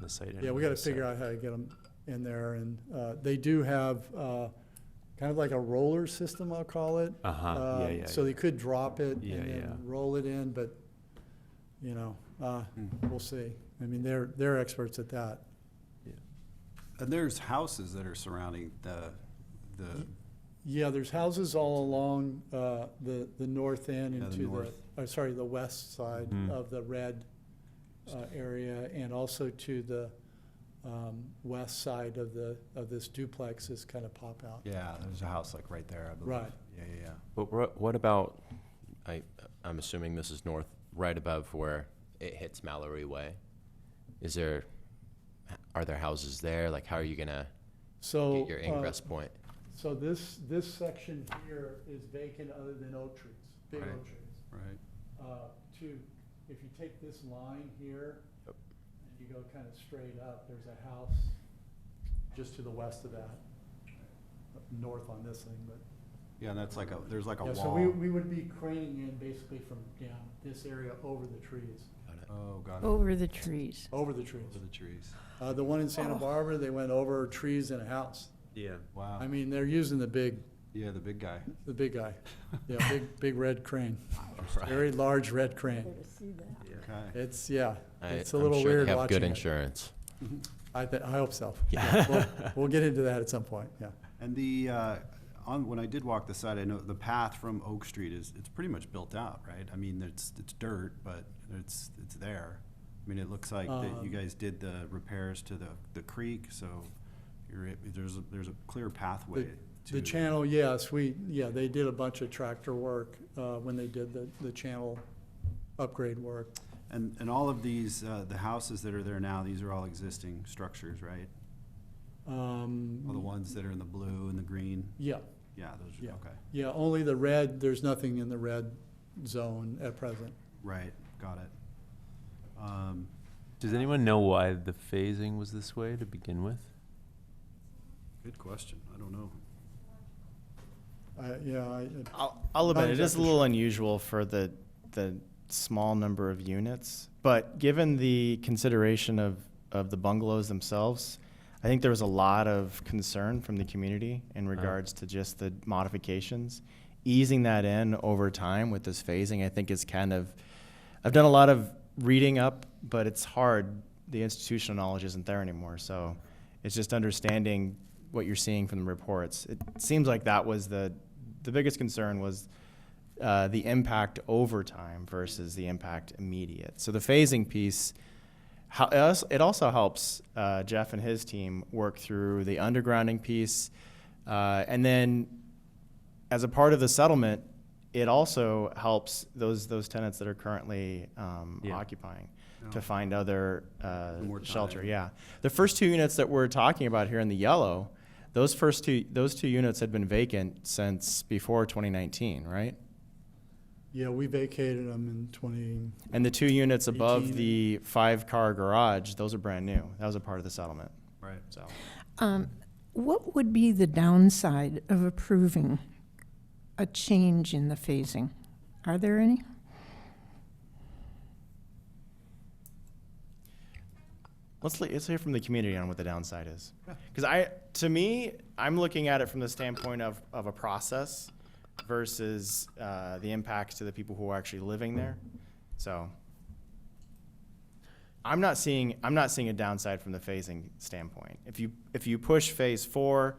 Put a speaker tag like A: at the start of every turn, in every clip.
A: the site.
B: Yeah, we
A: anyway,
B: gotta
A: so-
B: figure out how to get them in there, and, uh, they do have, uh, kind of like a roller system, I'll call it.
A: Uh-huh, yeah,
B: Um,
A: yeah,
B: So
A: yeah.
B: they could drop it
A: Yeah,
B: and
A: yeah.
B: then roll it in, but, you know, uh,
A: Hmm.
B: we'll see. I mean, they're, they're experts at that.
C: And there's houses that are surrounding the, the,
B: Yeah, there's houses all along, uh, the, the north end
C: Yeah,
B: and
C: the
B: to the,
C: north.
B: oh, sorry, the west side
A: Mhm.
B: of the red, uh, area, and also to the, um, west side of the, of this duplex is kind of pop out.
C: yeah, there's a house like right there, I believe.
B: Right.
C: Yeah, yeah, yeah.
D: But wha- what about, I, I'm assuming this is north, right above where it hits Mallory Way? Is there, are there houses there? Like, how are you gonna
B: So.
D: get your
B: uh,
D: ingress point?
B: So this, this section here is vacant other than oak trees, big
C: Right.
B: oak trees.
C: Right.
B: Uh, To, if you take this line here,
D: Yep.
B: and you go kind of straight up, there's a house just to the west of that, up north on this thing, but.
C: Yeah, and that's like a, there's like a
B: Yeah, so we,
C: wall.
B: we would be craning in basically from down this area over the trees,
C: Oh, God.
E: Over the trees.
B: over the trees.
C: Over the trees.
B: Uh, the one in Santa Barbara, they went over trees and a house.
A: Yeah.
C: Oh. Wow.
B: I mean, they're using the big,
C: Yeah, the big guy.
B: the big guy. Yeah, big, big red crane. Very large red crane.
C: Okay.
B: It's, yeah,
D: I-
B: it's a
D: I'm
B: little
D: sure
B: weird
D: they have
B: watching
D: Good
B: it.
D: insurance.
B: I, thi- I hope so. Yeah, We'll we'll get into that at some point, yeah.
C: And the, uh, on, when I did walk the side, I know the path from Oak Street is, it's pretty much built out, right? I mean, it's, it's dirt, but it's, it's there. I mean, it looks like that you
B: Um,
C: guys did the repairs to the, the creek, so you're, there's, a- there's a clear pathway to.
B: The channel, yes, we, yeah, they did a bunch of tractor work uh, when they did the, the channel upgrade work.
C: And, and all of these, uh, the houses that are there now, these are all existing structures, right? All the
B: Um,
C: ones that are in the blue and the green?
B: Yeah,
C: Yeah, those
B: Yeah.
C: are, okay.
B: yeah, only the red, there's nothing in the red zone at present.
C: Right, got it. Um,
A: Does anyone know why the phasing was this way to begin with?
C: Good question. I don't know.
B: I- Yeah, I, it-
F: I'll, I'll admit
B: Not
F: it is a
B: exactly
F: little unusual for the the small number of units, but given the consideration of of the bungalows themselves, I think there was a lot of concern from the community in
A: Right.
F: regards to just the modifications. Easing that in over time with this phasing, I think is kind of I've done a lot of reading up, but it's hard. The institutional knowledge isn't there anymore, so it's just understanding what you're seeing from the reports. It seems like that was the the biggest concern was uh, the impact over time versus the impact immediate. So the phasing piece, how, it als- it also helps uh, Jeff and his team work through the undergrounding piece, uh, and then as a part of the settlement, it also helps those those tenants that are currently um,
A: Yeah.
F: occupying
C: Yeah. Oh.
F: to find other uh,
C: More
F: shelter.
C: time.
F: Yeah, the first two units that we're talking about here in the yellow, those first two those two units had been vacant since before 2019, right?
B: yeah, we vacated them in twenty,
F: And the two units above
B: 18.
F: the five car garage, those are brand new. That was a part of the settlement.
C: Right.
F: So
E: Um, What would be the downside of approving a change in the phasing? Are there any?
F: let's le- let's hear from the community on what the downside is. Because I, to me, I'm looking at it from the standpoint of of a process versus uh, the impacts to the people who are actually living there. So I'm not seeing I'm not seeing a downside from the phasing standpoint. If you if you push phase four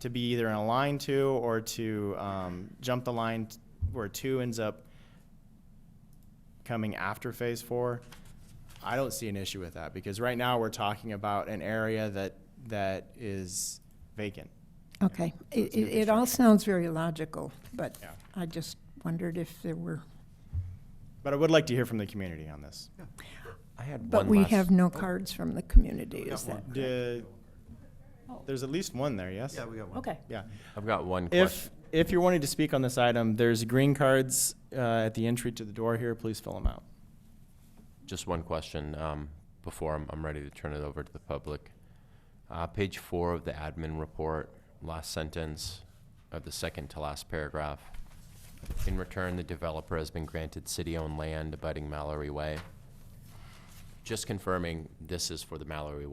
F: to be either in a line two or to um, jump the line t- where two ends up coming after phase four, I don't see an issue with that because right now we're talking about an area that that is vacant.
E: Okay, it,
F: it's new
E: it it all sounds very logical, but
F: Yeah.
E: I just wondered if there were,
F: But I would like to hear from the community on this.
D: I had one
E: but we
D: last-
E: have no cards from the community, is that?
F: Do- Oh. there's at least one there, yes?
C: Yeah, we got one.
G: Okay.
F: Yeah.
D: I've got one question.
F: If if you're wanting to speak on this item, there's green cards uh, at the entry to the door here. Please fill them out.
D: Just one question um, before I'm, I'm ready to turn it over to the public. Uh, page four of the admin report, last sentence of the second to last paragraph. In return, the developer has been granted city-owned land abutting Mallory Way. just confirming this is for the Mallory